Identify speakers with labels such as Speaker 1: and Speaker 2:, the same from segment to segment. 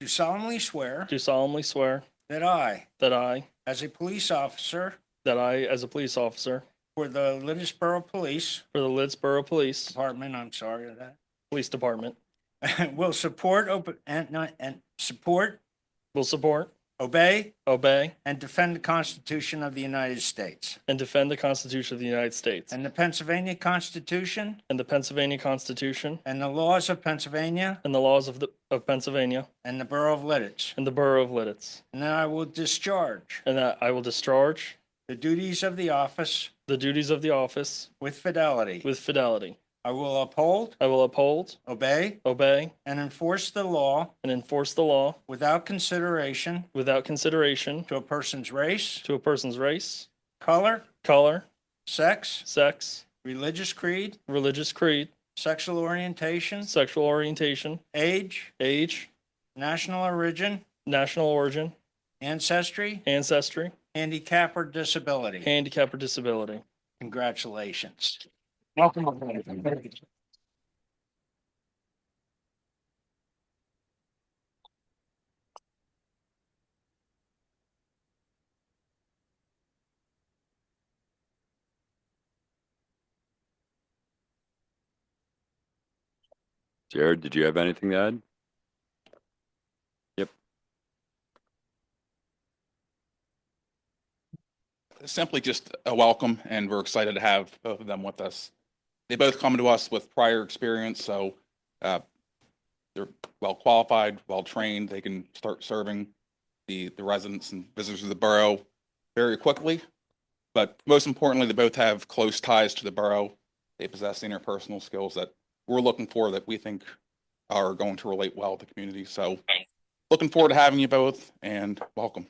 Speaker 1: do solemnly swear
Speaker 2: do solemnly swear
Speaker 1: that I,
Speaker 2: that I,
Speaker 1: as a police officer
Speaker 2: that I, as a police officer
Speaker 1: for the Lindisboro Police
Speaker 2: for the Lidsboro Police
Speaker 1: Department, I'm sorry for
Speaker 2: Police Department,
Speaker 1: that, will support, open, and, not- and support,
Speaker 2: will support,
Speaker 1: obey,
Speaker 2: obey,
Speaker 1: and defend the Constitution of the United States
Speaker 2: and defend the Constitution of the United States
Speaker 1: and the Pennsylvania Constitution
Speaker 2: and the Pennsylvania Constitution
Speaker 1: and the laws of Pennsylvania
Speaker 2: and the laws of the, of Pennsylvania
Speaker 1: and the Borough of Lidditch.
Speaker 2: and the Borough of Lidditz,
Speaker 1: And that I will discharge
Speaker 2: and that I will discharge
Speaker 1: the duties of the office
Speaker 2: the duties of the office
Speaker 1: with fidelity.
Speaker 2: with fidelity.
Speaker 1: I will uphold,
Speaker 2: I will uphold,
Speaker 1: obey,
Speaker 2: obey,
Speaker 1: and enforce the law
Speaker 2: and enforce the law
Speaker 1: without consideration
Speaker 2: without consideration
Speaker 1: to a person's race,
Speaker 2: to a person's race,
Speaker 1: color,
Speaker 2: color,
Speaker 1: sex,
Speaker 2: sex,
Speaker 1: religious creed,
Speaker 2: religious creed,
Speaker 1: sexual orientation,
Speaker 2: sexual orientation,
Speaker 1: age,
Speaker 2: age,
Speaker 1: national origin,
Speaker 2: national origin,
Speaker 1: ancestry,
Speaker 2: ancestry,
Speaker 1: handicap, or disability.
Speaker 2: handicap, or disability.
Speaker 1: Congratulations.
Speaker 3: Welcome.
Speaker 4: Jared, did you have anything to add?
Speaker 5: simply just a welcome and we're excited to have both of them with us. They both come to us with prior experience, so uh, they're well qualified, well trained. They can start serving the, the residents and visitors of the borough very quickly. But most importantly, they both have close ties to the borough. They possess the interpersonal skills that we're looking for that we think are going to relate well to the community. So looking forward to having you both and welcome.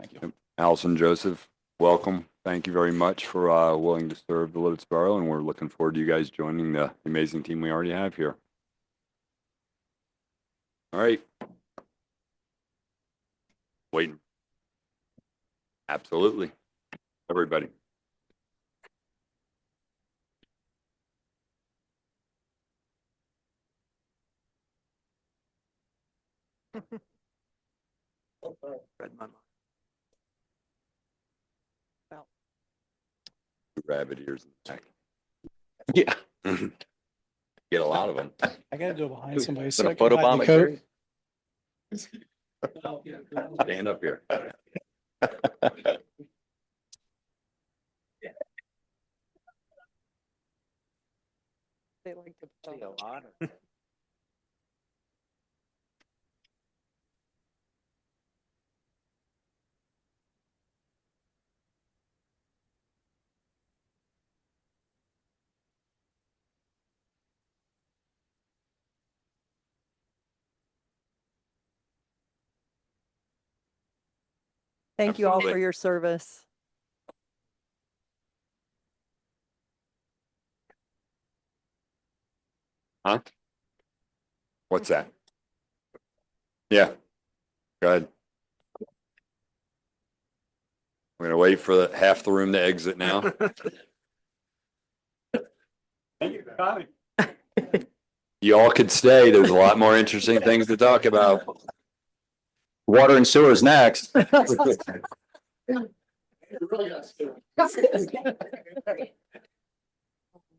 Speaker 5: Thank you.
Speaker 4: Allison Joseph, welcome. Thank you very much for uh, willing to serve the Lititz Borough, and we're looking forward to you guys joining the amazing team we already have here. All right. Waiting. Absolutely. Everybody. Rabbit ears in the back. Yeah. Get a lot of them.
Speaker 3: I gotta go behind somebody. so
Speaker 4: Gonna
Speaker 3: I can hide
Speaker 4: photobomb
Speaker 3: the
Speaker 4: it,
Speaker 3: coat.
Speaker 4: Jerry? Stand up here.
Speaker 6: They like to.
Speaker 3: See
Speaker 6: a lot Thank you all for
Speaker 4: Absolutely.
Speaker 6: your service.
Speaker 4: Huh? What's that? Yeah. Go ahead. We're gonna wait for the- half the room to exit now. Y'all could stay. There's a lot more interesting things to talk about. Water and sewer is next.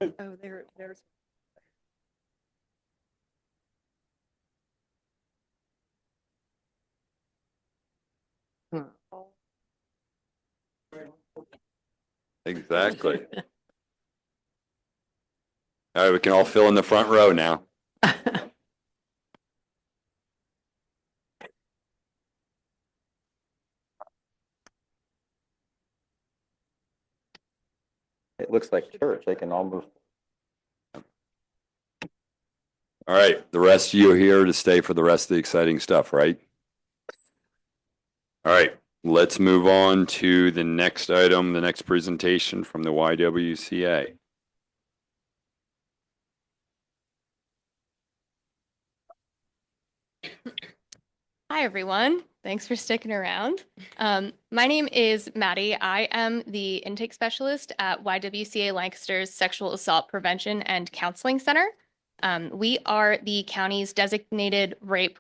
Speaker 6: Oh, there, there's. Oh.
Speaker 4: Exactly. All right, we can all fill in the front row now.
Speaker 7: It looks like church. They can all move.
Speaker 4: All right, the rest of you are here to stay for the rest of the exciting stuff, right? All right, let's move on to the next item, the next presentation from the YWCA.
Speaker 8: Hi, everyone. Thanks for sticking around. Um, my name is Maddie. I am the intake specialist at YWCA Lancaster's Sexual Assault Prevention and Counseling Center. Um, we are the county's designated rape